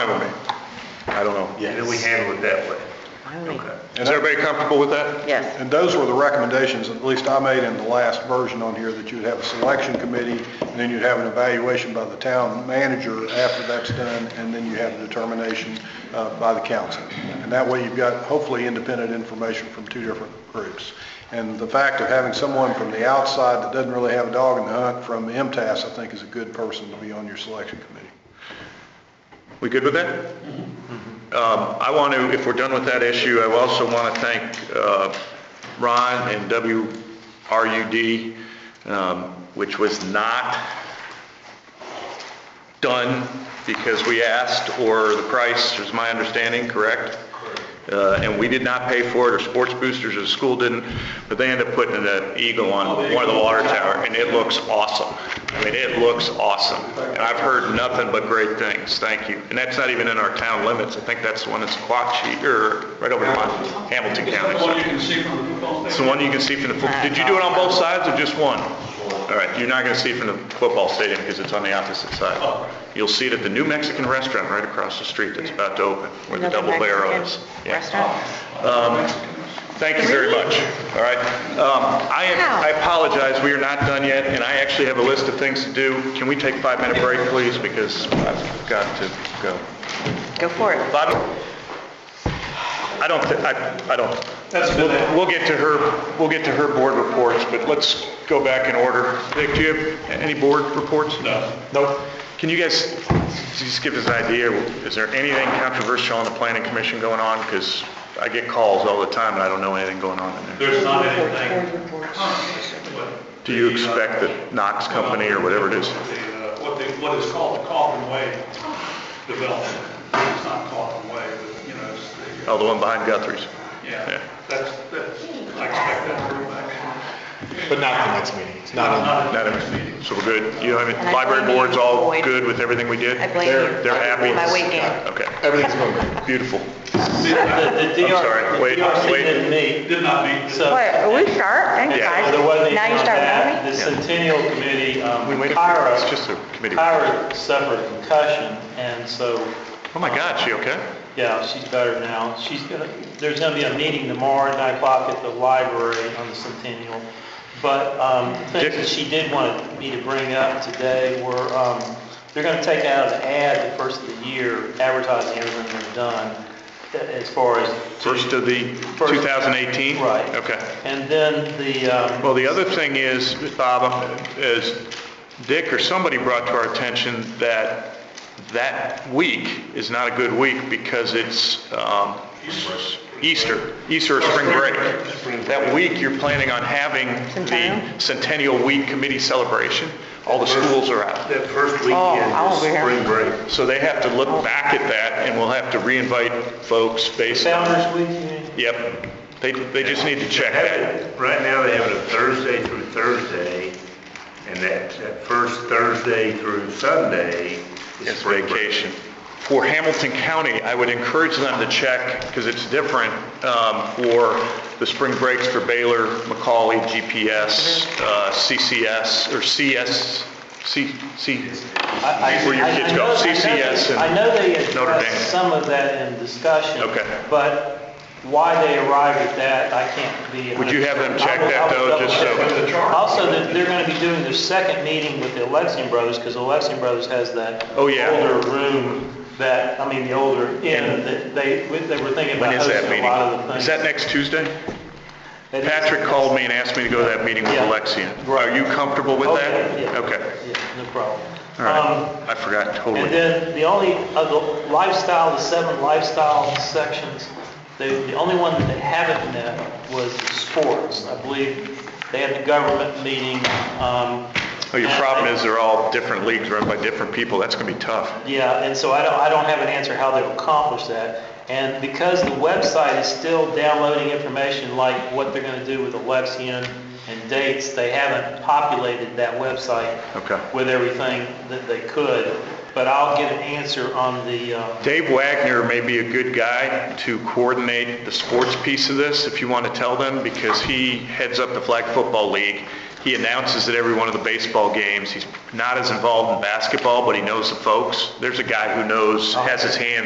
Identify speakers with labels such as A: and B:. A: I don't know.
B: And then we handle it that way. Okay.
C: Is everybody comfortable with that?
D: Yes.
C: And those were the recommendations, at least I made in the last version on here, that you'd have a selection committee, and then you'd have an evaluation by the town manager after that's done, and then you have a determination uh, by the council. And that way, you've got hopefully independent information from two different groups. And the fact of having someone from the outside that doesn't really have a dog in the hunt from MTS, I think is a good person to be on your selection committee.
A: We good with that? Um, I want to, if we're done with that issue, I also want to thank uh, Ron and WRUD, um, which was not done because we asked, or the price, is my understanding, correct? Uh, And we did not pay for it, or Sports Boosters or the school didn't, but they ended up putting an eagle on one of the water tower, and it looks awesome. I mean, it looks awesome. And I've heard nothing but great things, thank you. And that's not even in our town limits, I think that's the one that's Quachie, or right over in Mon- Hamilton County.
E: What you can see from the football
A: It's
E: stadium.
A: the one you can see from the, fo- did you do it on both sides or just one? All right, you're not going to see it from the football stadium because it's on the opposite side. You'll see it at the New Mexican Restaurant right across the street that's about to open, where the
D: Another
A: double barrel
D: Mexican
A: is. Yeah.
D: Restaurant?
A: Um, Thank you very much, all right? Um, I I apologize, we are not done yet, and I actually have a list of things to do. Can we take a five-minute break, please, because I've got to go.
D: Go for it.
A: Bob? I don't, thi- I I don't,
E: That's been it.
A: We'll get to her, we'll get to her board reports, but let's go back in order. Vic, do you have any board reports?
E: No.
A: Nope. Can you guys just give us an idea, is there anything controversial on the planning commission going on? Because I get calls all the time and I don't know anything going on in there.
E: There's not anything.
A: Do you expect that Knox Company or whatever it is?
E: The, uh, What they, what is called the Coffin Way development. It's not Coffin Way, but, you know, it's the, uh,
A: Oh, the one behind Guthrie's?
E: yeah, that's, that's, I expect that to go back.
F: But not the next meeting. It's not on.
E: Not
A: Not
E: at
A: in,
E: this meeting.
A: so we're good. You know, I
D: And
A: mean,
D: I
A: library
D: blame you,
A: board's all
D: Boyd.
A: good with everything we did?
D: I blame you.
A: They're, they're happy?
D: My weight gain.
A: Okay,
F: Everything's going great.
A: beautiful.
G: The
A: I'm sorry,
G: DR,
A: wait,
G: the DRC
A: wait.
G: didn't
E: It
G: meet.
E: did not meet.
G: So-
D: What, are we sharp? Thank
A: Yeah.
D: God.
G: So there wasn't
D: Now
G: anything
D: you
G: on
D: start
G: that.
D: moving?
G: The
A: Yeah.
G: Centennial Committee, um,
A: We waited for-
G: Kyra,
A: it's just a committee.
G: Kyra suffered concussion, and so,
A: Oh my God, she okay?
G: yeah, she's better now. She's gonna, there's gonna be a meeting tomorrow at nine o'clock at the library on the Centennial. But, um, the
A: Dick-
G: things that she did want me to bring up today were, um, they're gonna take out of the ad the first of the year, advertising everything they've done, a- as far as. to-
A: First of the
G: First-
A: 2018?
G: Right.
A: Okay.
G: And then the, um,
A: Well, the other thing is, Bob, is Dick or somebody brought to our attention that that week is not a good week because it's um, Easter, Easter or spring break. That week, you're planning on having
D: Centennial?
A: the Centennial Week Committee celebration. All the schools are out.
B: That first
D: Oh,
B: weekend
D: I
B: is
D: won't be here.
B: spring break.
A: So they have to look back at that and we'll have to reinvite folks based on...
G: Founders Week, you mean?
A: Yep. They, they just need to check that.
B: Right now, they have it a Thursday through Thursday, and that, that first Thursday through Sunday is
A: It's
B: spring break.
A: vacation. For Hamilton County, I would encourage them to check, because it's different, um, for the spring breaks for Baylor, Macaulay, GPS,
G: Mm-hmm.
A: uh, CCS, or CS, C, C,
G: I- I-
A: where your
G: I-
A: kids
G: I
A: go,
G: know- I know
A: CCS
G: they- I know they
A: and Notre
G: addressed
A: Dame.
G: some of that in discussion.
A: Okay.
G: But why they arrived at that, I can't be.
A: Would you have them check
G: I will-
A: that,
G: I will
A: though, just so-
G: double check. Also, they're, they're gonna be doing their second meeting with the Alexian Brothers, because Alexian Brothers has that.
A: Oh, yeah.
G: Older room that, I mean, the older inn, that they, they were thinking
A: When
G: about
A: is that
G: hosting a lot of the
A: meeting?
G: things.
A: Is that next Tuesday?
G: That is-
A: Patrick called me and asked me to go to that meeting with
G: Yeah.
A: Alexian. Are you comfortable with
G: Oh,
A: that?
G: yeah, yeah.
A: Okay,
G: Yeah, no problem.
A: all
G: Um,
A: right. I forgot totally.
G: And then the only, of the lifestyle, the seven lifestyle sections, the, the only one that they haven't met was sports. I believe they had the government meeting, um.
A: Oh, your
G: and-
A: problem is they're all different leagues run by different people. That's going to be tough.
G: Yeah, and so I don't, I don't have an answer how they'll accomplish that. And because the website is still downloading information like what they're gonna do with Alexian and dates, they haven't populated that website.
A: Okay.
G: With everything that they could, but I'll get an answer on the, uh,
A: Dave Wagner may be a good guy to coordinate the sports piece of this, if you want to tell them, because he heads up the Flag Football League. He announces at every one of the baseball games. He's not as involved in basketball, but he knows the folks. There's a guy who knows, has his hands